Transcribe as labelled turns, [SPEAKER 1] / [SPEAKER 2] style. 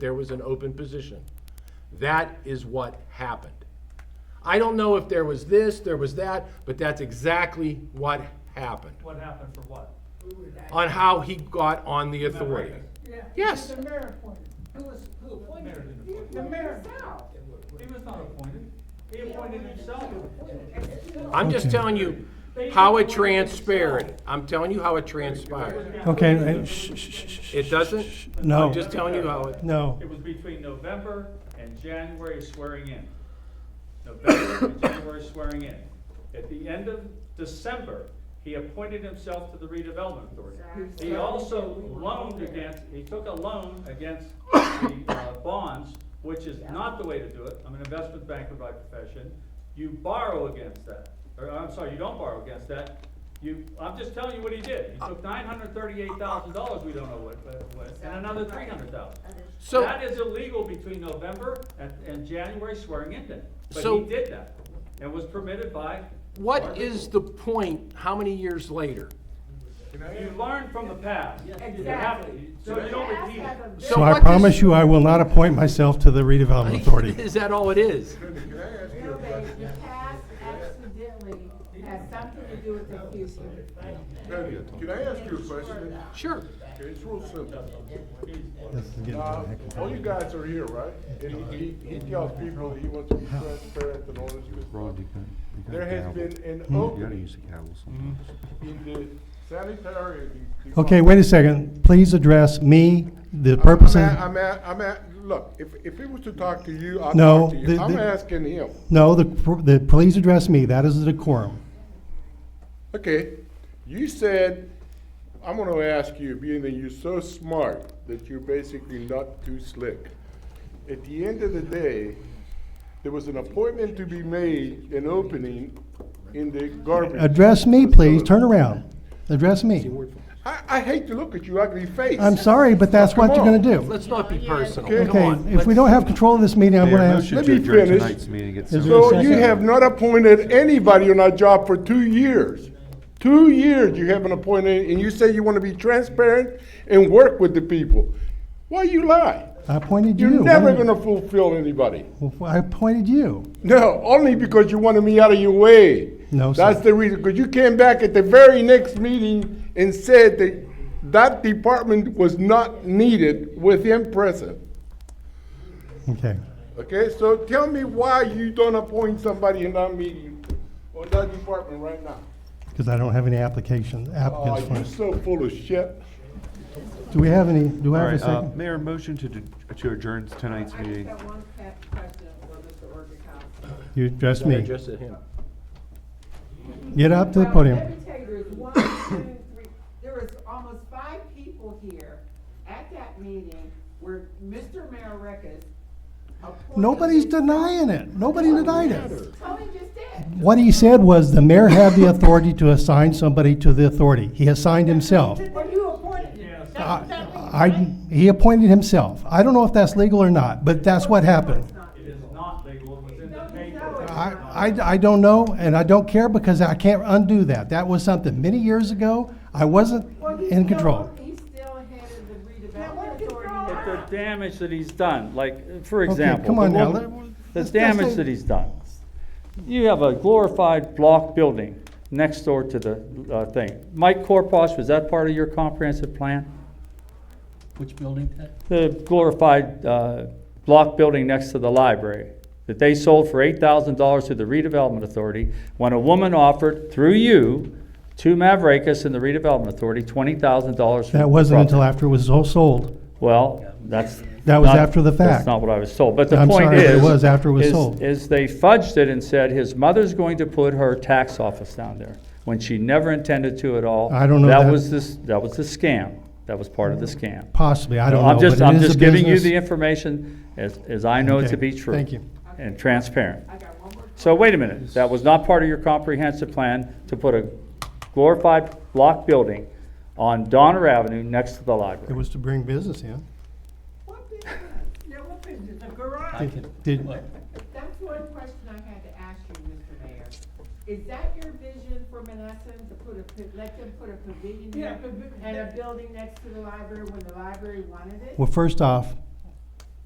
[SPEAKER 1] There was an open position. That is what happened. I don't know if there was this, there was that, but that's exactly what happened
[SPEAKER 2] What happened for what?
[SPEAKER 3] Who was that?
[SPEAKER 1] on how he got on the authority.
[SPEAKER 3] Yeah,
[SPEAKER 1] Yes.
[SPEAKER 3] The mayor appointed. Who was, who appointed?
[SPEAKER 2] Mayor didn't
[SPEAKER 3] him?
[SPEAKER 2] appoint
[SPEAKER 3] The
[SPEAKER 2] him.
[SPEAKER 3] mayor.
[SPEAKER 2] He was not appointed. He appointed himself.
[SPEAKER 1] I'm just telling you how it transpired. I'm telling you how it transpired.
[SPEAKER 4] Okay, and- shh, shh, shh, shh,
[SPEAKER 1] It doesn't?
[SPEAKER 4] No.
[SPEAKER 1] I'm just telling you how it,
[SPEAKER 4] no.
[SPEAKER 2] It was between November and January swearing in. November and January swearing in. At the end of December, he appointed himself to the redevelopment authority. He also loaned against, he took a loan against the uh, bonds, which is not the way to do it. I'm an investment banker by profession. You borrow against that, or I'm sorry, you don't borrow against that. You, I'm just telling you what he did. He took nine hundred thirty-eight thousand dollars, we don't know what, what- what, and another three hundred thousand.
[SPEAKER 1] So-
[SPEAKER 2] That is illegal between November and, and January swearing in day. But
[SPEAKER 1] So-
[SPEAKER 2] he did that and was permitted by.
[SPEAKER 1] what is the point, how many years later?
[SPEAKER 2] You learn from the past. You have to- So you don't repeat it.
[SPEAKER 4] So
[SPEAKER 1] what
[SPEAKER 4] I
[SPEAKER 1] does-
[SPEAKER 4] promise you, I will not appoint myself to the redevelopment authority.
[SPEAKER 1] Is that all it is?
[SPEAKER 3] The past accidentally has something to do with the future.
[SPEAKER 5] Tony, Can I ask you a question?
[SPEAKER 1] Sure.
[SPEAKER 5] Okay, It's real simple.
[SPEAKER 4] This is getting to
[SPEAKER 5] Uh,
[SPEAKER 4] the heck of a-
[SPEAKER 5] All you guys are here, right? And he, he he tells people that he wants to be transparent and all this good
[SPEAKER 6] Rod, you
[SPEAKER 5] stuff.
[SPEAKER 6] can, you can
[SPEAKER 5] There has
[SPEAKER 6] gavel. Hmm?
[SPEAKER 5] been an
[SPEAKER 6] You gotta
[SPEAKER 5] opening
[SPEAKER 6] use a gavel sometimes.
[SPEAKER 5] in the sanitary. de-
[SPEAKER 4] Okay, wait a second. Please address me, the
[SPEAKER 5] I'm
[SPEAKER 4] purpose
[SPEAKER 5] a-
[SPEAKER 4] of,
[SPEAKER 5] I'm a, I'm a, look, if, if it was to talk to you, I'll
[SPEAKER 4] No,
[SPEAKER 5] talk to
[SPEAKER 4] the-
[SPEAKER 5] you. I'm
[SPEAKER 4] the-
[SPEAKER 5] asking him.
[SPEAKER 4] no, the, the, please address me. That is the decorum.
[SPEAKER 5] Okay, you said, I'm gonna ask you, being that you're so smart, that you're basically not too slick. At the end of the day, there was an appointment to be made, an opening in the garbage.
[SPEAKER 4] Address me, please.
[SPEAKER 5] facility.
[SPEAKER 4] Turn around. Address me.
[SPEAKER 5] I, I hate to look at your ugly face.
[SPEAKER 4] I'm sorry, but that's what you're gonna do.
[SPEAKER 1] Let's not be personal.
[SPEAKER 5] Okay.
[SPEAKER 1] Come
[SPEAKER 4] Okay,
[SPEAKER 1] on.
[SPEAKER 4] if we
[SPEAKER 1] Let's-
[SPEAKER 4] don't have control of this meeting, I'm
[SPEAKER 6] Mayor,
[SPEAKER 4] gonna ask.
[SPEAKER 6] motion
[SPEAKER 5] Let
[SPEAKER 6] to
[SPEAKER 5] me
[SPEAKER 6] adjourn
[SPEAKER 5] finish.
[SPEAKER 6] tonight's meeting at
[SPEAKER 4] there a
[SPEAKER 6] seven.
[SPEAKER 5] So you
[SPEAKER 4] second?
[SPEAKER 5] have not appointed anybody on our job for two years. Two years you haven't appointed, and you say you wanna be transparent and work with the people. Why you lie?
[SPEAKER 4] I appointed you.
[SPEAKER 5] You're never
[SPEAKER 4] Why-
[SPEAKER 5] gonna fulfill anybody.
[SPEAKER 4] Well, I appointed you.
[SPEAKER 5] No, only because you wanted me out of your way.
[SPEAKER 4] No, sir.
[SPEAKER 5] That's the reason, because you came back at the very next meeting and said that that department was not needed with him present.
[SPEAKER 4] Okay.
[SPEAKER 5] Okay, so tell me why you don't appoint somebody in that meeting or that department right now.
[SPEAKER 4] Because I don't have any applications,
[SPEAKER 5] Oh,
[SPEAKER 4] applicants for
[SPEAKER 5] you're
[SPEAKER 4] it.
[SPEAKER 5] so full of shit.
[SPEAKER 4] Do we have any, do
[SPEAKER 6] All
[SPEAKER 4] I have a
[SPEAKER 6] right, uh,
[SPEAKER 4] second?
[SPEAKER 6] Mayor, motion to, d- to adjourn tonight's
[SPEAKER 3] I just
[SPEAKER 6] meeting.
[SPEAKER 3] got one cap question for Mr. Orgeron.
[SPEAKER 4] You address
[SPEAKER 1] Gotta
[SPEAKER 4] me.
[SPEAKER 1] address it him.
[SPEAKER 4] Get up to the
[SPEAKER 3] Well, Let me
[SPEAKER 4] podium.
[SPEAKER 3] tell you, there's one, two, three, there was almost five people here at that meeting where Mr. Mayorkas appointed.
[SPEAKER 4] Nobody's
[SPEAKER 3] himself.
[SPEAKER 4] denying it. Nobody denied it.
[SPEAKER 3] Tony just did.
[SPEAKER 4] What he said was the mayor had the authority to assign somebody to the authority. He assigned himself.
[SPEAKER 3] Well, you appointed him.
[SPEAKER 2] Yes.
[SPEAKER 3] That's exactly right.
[SPEAKER 4] I, he appointed himself. I don't know if that's legal or not, but that's what happened.
[SPEAKER 2] It is not legal, it was in the paper.
[SPEAKER 4] I, I, I don't know, and I don't care because I can't undo that. That was something many years ago. I wasn't
[SPEAKER 3] Well, he's
[SPEAKER 4] in
[SPEAKER 3] still-
[SPEAKER 4] control.
[SPEAKER 3] He's still head of the redevelopment
[SPEAKER 2] But
[SPEAKER 3] authority.
[SPEAKER 2] the damage that he's done, like, for
[SPEAKER 4] Okay,
[SPEAKER 2] example.
[SPEAKER 4] Come
[SPEAKER 2] the
[SPEAKER 4] on now.
[SPEAKER 2] one-
[SPEAKER 4] let-
[SPEAKER 2] The
[SPEAKER 4] let's- let's
[SPEAKER 2] damage
[SPEAKER 4] say-
[SPEAKER 2] that he's done. You have a glorified block building next door to the, uh, thing. Mike Korpach, was that part of your comprehensive plan?
[SPEAKER 7] Which building, Ted?
[SPEAKER 2] The glorified, uh, block building next to the library that they sold for eight thousand dollars to the redevelopment authority when a woman offered through you to Mavrekas and the redevelopment authority twenty thousand dollars.
[SPEAKER 4] That wasn't until after it was all sold.
[SPEAKER 2] Well, that's.
[SPEAKER 4] That was
[SPEAKER 2] not-
[SPEAKER 4] after the fact.
[SPEAKER 2] That's not what I was told, but the
[SPEAKER 4] I'm
[SPEAKER 2] point
[SPEAKER 4] sorry, but
[SPEAKER 2] is.
[SPEAKER 4] it was after it was
[SPEAKER 2] is-
[SPEAKER 4] sold.
[SPEAKER 2] Is they fudged it and said his mother's going to put her tax office down there, when she never intended to at all.
[SPEAKER 4] I don't know
[SPEAKER 2] That
[SPEAKER 4] that-
[SPEAKER 2] was this, that was the scam, that was part of the scam.
[SPEAKER 4] Possibly, I don't know.
[SPEAKER 2] I'm just,
[SPEAKER 4] but it
[SPEAKER 2] I'm
[SPEAKER 4] is a
[SPEAKER 2] just giving you
[SPEAKER 4] business.
[SPEAKER 2] the information as, as I know it to
[SPEAKER 4] Okay,
[SPEAKER 2] be true.
[SPEAKER 4] thank you.
[SPEAKER 2] And transparent.
[SPEAKER 3] I got one more.
[SPEAKER 2] So wait a minute, that was not part of your comprehensive plan to put a glorified block building on Donner Avenue next to the
[SPEAKER 4] It
[SPEAKER 2] library.
[SPEAKER 4] was to bring business in.
[SPEAKER 3] What business? Yeah, what business? The garage.
[SPEAKER 7] I can,
[SPEAKER 4] Did-
[SPEAKER 7] look,
[SPEAKER 3] That's one question I had to ask you, Mr. Mayor. Is that your vision for Menneson to put a, pa- let them put a pavilion there and a building next to the library when the library wanted it?
[SPEAKER 4] Well, first off,